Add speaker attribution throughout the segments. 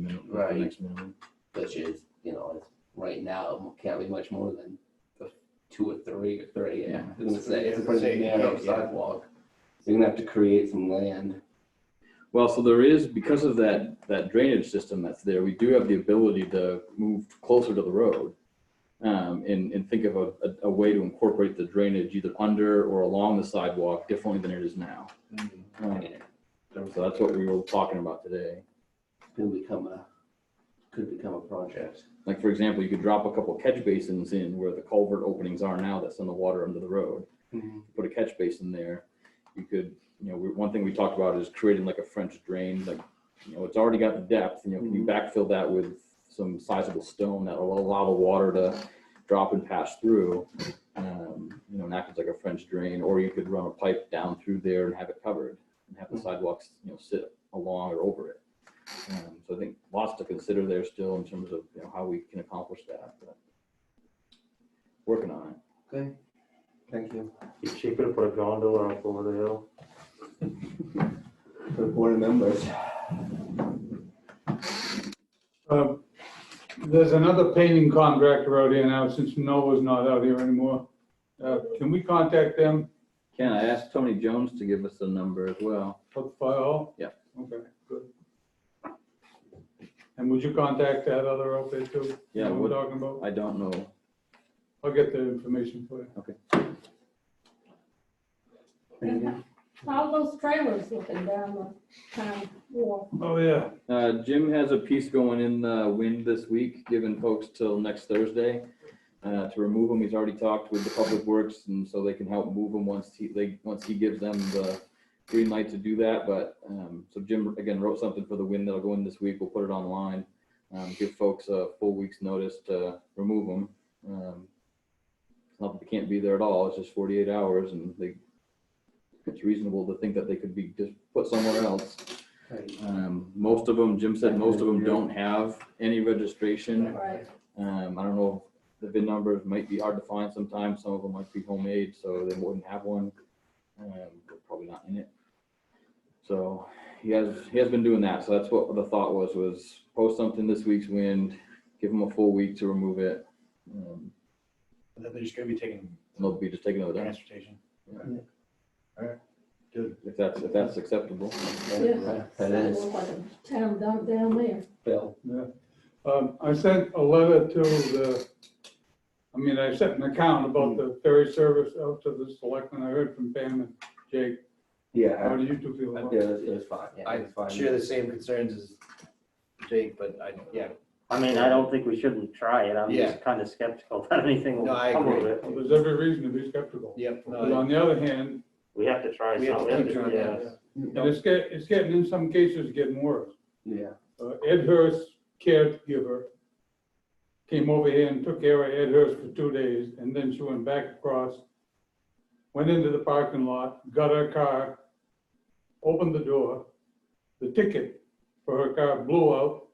Speaker 1: at the
Speaker 2: Right.
Speaker 1: next meeting.
Speaker 2: which is, you know, it's right now, it can't be much more than the two or three or three, yeah. I was gonna say, it's a pretty
Speaker 3: Yeah,
Speaker 2: narrow
Speaker 3: yeah.
Speaker 2: sidewalk. You're gonna have to create some land.
Speaker 1: Well, so there is, because of that, that drainage system that's there, we do have the ability to move closer to the road. Um, and, and think of a, a, a way to incorporate the drainage either under or along the sidewalk differently than it is now. Um, So that's what we were talking about today.
Speaker 2: Could become a, could become a project.
Speaker 1: Like, for example, you could drop a couple catch basins in where the culvert openings are now that's in the water under the road.
Speaker 2: Mm-hmm.
Speaker 1: put a catch basin there. You could, you know, we, one thing we talked about is creating like a French drain, like, you know, it's already got the depth, you know, can you backfill that with some sizable stone that'll allow the water to drop and pass through? Um, you know, and act as like a French drain, or you could run a pipe down through there and have it covered and have the
Speaker 2: Mhm.
Speaker 1: sidewalks, you know, sit along or over it. Um, so I think lots to consider there still in terms of, you know, how we can accomplish that, but working on it.
Speaker 2: Okay, thank you.
Speaker 4: Be cheaper to put a gondola up over the hill.
Speaker 2: For the board members.
Speaker 5: Um, There's another painting contractor out here now, since Noah's not out here anymore. Uh, Can we contact them
Speaker 1: Ken, I asked Tony Jones to give us a number as well.
Speaker 5: for the fire hall?
Speaker 1: Yeah.
Speaker 5: Okay, good. And would you contact that other outfit too?
Speaker 1: Yeah,
Speaker 5: That We're
Speaker 1: would-
Speaker 5: talking about,
Speaker 1: I don't know.
Speaker 5: I'll get the information for you.
Speaker 2: Thank you.
Speaker 6: Mm-hmm. All those trailers looking down the town wharf.
Speaker 5: Oh, yeah.
Speaker 1: Uh, Jim has a piece going in the wind this week, giving folks till next Thursday uh, to remove them. He's already talked with the Public Works and so they can help move them once he, they, once he gives them the green light to do that. But, um, so Jim again wrote something for the wind that'll go in this week. We'll put it online. Um, give folks a full week's notice to remove them. Um, it's not that they can't be there at all. It's just 48 hours and they, it's reasonable to think that they could be just put somewhere else.
Speaker 2: Right.
Speaker 1: Um, most of them, Jim said most of them don't have any registration.
Speaker 6: Right.
Speaker 1: Um, I don't know, the VIN numbers might be hard to find sometimes. Some of them might be homemade, so they wouldn't have one. Um, they're probably not in it. So he has, he has been doing that. So that's what the thought was, was post something this week's wind, give them a full week to remove it. um,
Speaker 3: And then they're just gonna be taking
Speaker 1: And they'll be just taking another day,
Speaker 3: transportation.
Speaker 1: if that's, if that's acceptable.
Speaker 2: Yeah, That is,
Speaker 6: Look like a Town dump down there.
Speaker 2: Bill.
Speaker 5: Um, I sent a letter to the, I mean, I sent an account
Speaker 1: Hmm.
Speaker 5: about the ferry service out to the selectmen. I heard from Pam and Jake. How
Speaker 2: Yeah,
Speaker 5: do you two feel
Speaker 2: I-
Speaker 5: about
Speaker 2: it
Speaker 5: it?
Speaker 2: was, it was fine. Yeah, it was fine.
Speaker 3: Share the same concerns as Jake, but I, yeah,
Speaker 7: I mean, I don't think we shouldn't try it. I'm
Speaker 3: Yeah.
Speaker 7: just kind of skeptical that anything
Speaker 3: No,
Speaker 7: will
Speaker 3: I
Speaker 7: come of
Speaker 3: agree.
Speaker 7: it.
Speaker 5: Well, There's every reason to be skeptical.
Speaker 3: yep. no,
Speaker 5: But on the other hand,
Speaker 7: We have to try
Speaker 3: We have to keep
Speaker 7: something,
Speaker 3: trying
Speaker 7: yeah.
Speaker 3: that.
Speaker 5: And it's get, it's getting, in some cases, getting worse.
Speaker 2: Mm-hmm. Yeah,
Speaker 5: Uh, Ed Hurst caregiver came over here and took care of Ed Hurst for two days, and then she went back across, went into the parking lot, got her car, opened the door, the ticket for her car blew out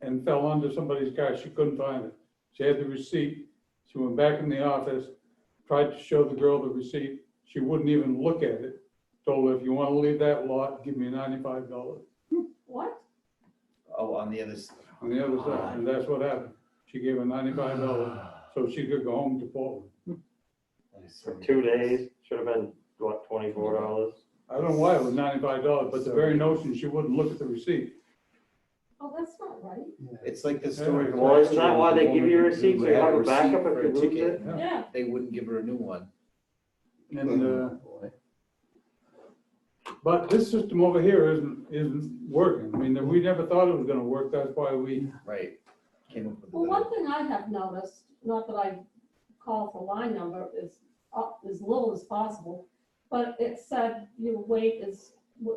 Speaker 5: and fell onto somebody's car. She couldn't find it. She had the receipt. She went back in the office, tried to show the girl the receipt. She wouldn't even look at it. Told her, if you want to leave that lot, give me ninety-five dollars
Speaker 6: What?
Speaker 3: Oh, on the other. s-
Speaker 5: on the other side, and that's what happened. She gave her ninety-five dollars so she could go home to Portland.
Speaker 7: For two days, should have been, what, twenty-four
Speaker 3: Mm-hmm.
Speaker 7: dollars?
Speaker 5: I don't know why it was ninety-five dollars, but the very notion, she wouldn't look at the receipt.
Speaker 6: Oh, that's not right.
Speaker 3: It's like the story. of
Speaker 5: Well,
Speaker 3: last
Speaker 7: isn't that
Speaker 3: year,
Speaker 7: why
Speaker 3: the
Speaker 7: they give
Speaker 3: woman
Speaker 7: you
Speaker 3: who
Speaker 7: receipts? You
Speaker 3: had
Speaker 7: have a
Speaker 3: receipt
Speaker 7: backup if
Speaker 3: for a
Speaker 7: you lose
Speaker 3: ticket,
Speaker 5: Yeah.
Speaker 6: Yeah,
Speaker 3: They wouldn't give her a new one.
Speaker 5: And, uh, but this system over here isn't, isn't working. I mean, we never thought it was gonna work. That's why we,
Speaker 3: Right. Came up with
Speaker 6: well,
Speaker 3: another.
Speaker 6: one thing I have noticed, not that I call for line number, is up as little as possible, but it said your wait is,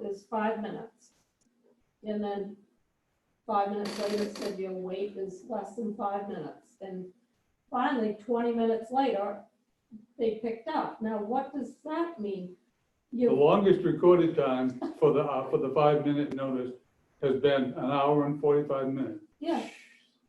Speaker 6: is five minutes. And then five minutes later it said your wait is less than five minutes. And finally, twenty minutes later, they picked up. Now, what does that mean?
Speaker 5: the
Speaker 6: You,
Speaker 5: longest recorded time for the, uh, for the five-minute notice has been an hour and forty-five minutes.
Speaker 6: yeah,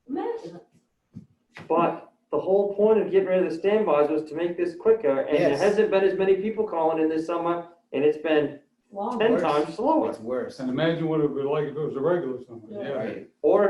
Speaker 6: imagine it.
Speaker 7: But the whole point of getting rid of the standbys was to make this quicker, and there
Speaker 3: Yes.
Speaker 7: hasn't been as many people calling in this summer, and it's been
Speaker 6: Wow.
Speaker 7: ten
Speaker 3: Worse.
Speaker 7: times slower.
Speaker 3: It's worse.
Speaker 5: And imagine what it would be like if it was a regular summer.
Speaker 6: Yeah.
Speaker 5: Yeah.
Speaker 3: Right.
Speaker 7: Or